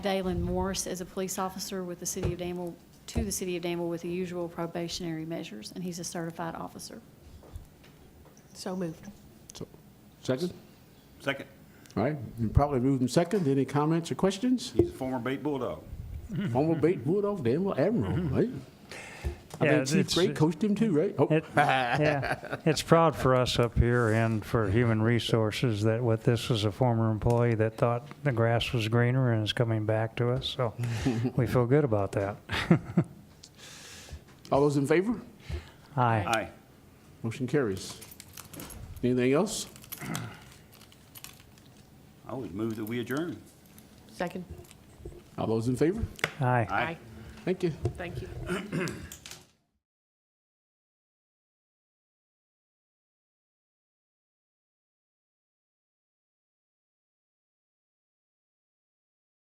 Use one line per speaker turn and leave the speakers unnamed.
Dalen Morris as a police officer with the city of Danville, to the city of Danville with the usual probationary measures, and he's a certified officer.
So moved.
Second?
Second,
All right, you probably moved in second. Any comments or questions?
he's a former Bait Bulldog.
Former Bait Bulldog, Danville Admiral, right? I
Yeah,
think Chief
it's-
Gray coached him too, right? Oh,
It, yeah, it's proud for us up here and for Human Resources that with this was a former employee that thought the grass was greener and is coming back to us. So we feel good about that.
All those in favor?
Aye.
Aye.
Motion carries. Anything else?
I would move that we adjourn.
Second.
All those in favor?
Aye.
Aye.
Thank you.
Thank you.